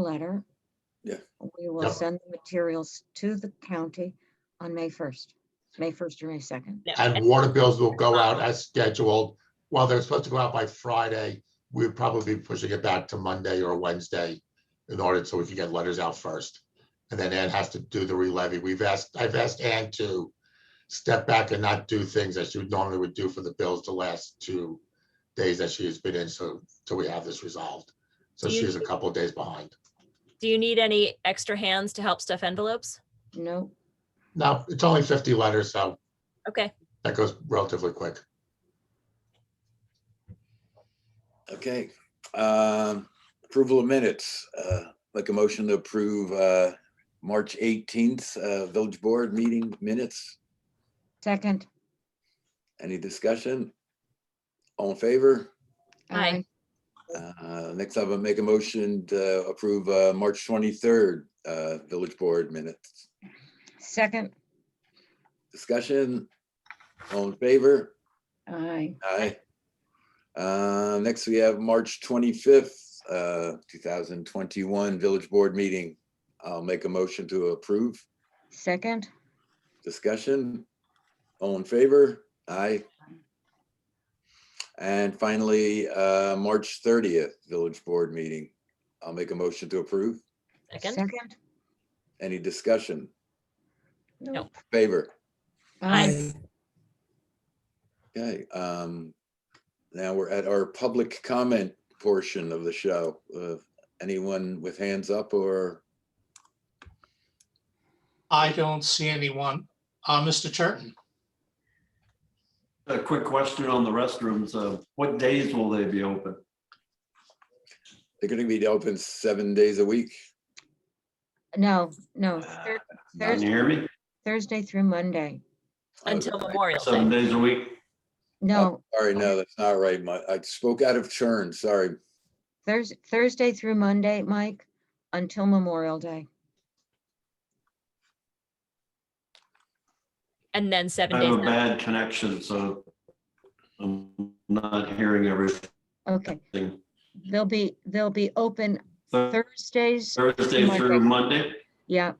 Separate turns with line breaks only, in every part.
letter.
Yeah.
We will
Yep.
send the materials to the county on May 1st, May 1st or May 2nd.
No,
And water bills will go
um,
out as scheduled. While they're supposed to go out by Friday, we'd probably be pushing it back to Monday or Wednesday in order so we can get letters out first. And then Ann has to do the re-levy. We've asked, I've asked Ann to step back and not do things that she would normally would do for the bills the last two days that she has been in, so till we have this resolved. So
Do you-
she's a couple of days behind.
Do you need any extra hands to help stuff envelopes?
No,
No, it's only fifty letters, so
Okay,
that goes relatively quick.
Okay. Um, Approval of minutes, Uh like a motion to approve uh March 18th uh Village Board meeting minutes.
second.
Any discussion? All in favor?
Aye.
Uh Next, I will make a motion to approve uh March 23rd uh Village Board minutes.
Second,
Discussion? All in favor?
aye.
Aye. Uh, Next, we have March 25th, uh, 2021 Village Board Meeting. I'll make a motion to approve.
Second,
Discussion? All in favor? Aye. And finally, uh, March 30th Village Board Meeting. I'll make a motion to approve.
second.
second.
Any discussion?
No.
Favor?
Aye.
Okay, um, now we're at our public comment portion of the show. Uh, Anyone with hands up or,
I don't see anyone. Uh, Mr. Churton,
A quick question on the restrooms. uh, What days will they be open?
they're gonna be open seven days a week?
No, no, Thur-
Can you
Thursday,
hear me?
Thursday through Monday.
Until Memorial
Seven
Day.
days a week?
No,
Sorry,
Oh.
no, that's not right. My, I spoke out of turn, sorry.
Thurs Thursday through Monday, Mike, until Memorial Day.
And then seven
I have a
days.
bad connection, so I'm not hearing everything.
Okay, they'll be, they'll be open
Thur-
Thursdays,
Thursday through Monday?
yeah,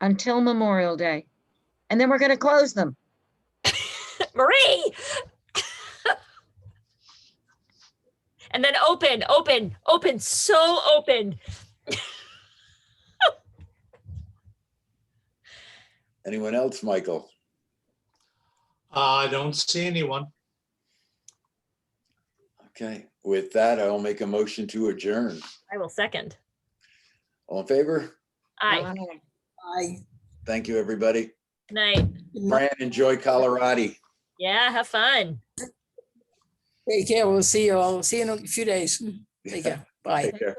until Memorial Day. And then we're gonna close them.
Marie! And then open, open, open, so open.
Anyone else, Michael?
Uh, I don't see anyone.
Okay, with that, I'll make a motion to adjourn.
I will second.
All in favor?
Aye,
Thank you, everybody.
Good night.
Fran, enjoy Colorado.
Yeah, have fun.
Take care. We'll see you all. See you in a few days. Take care. Bye.
Take care.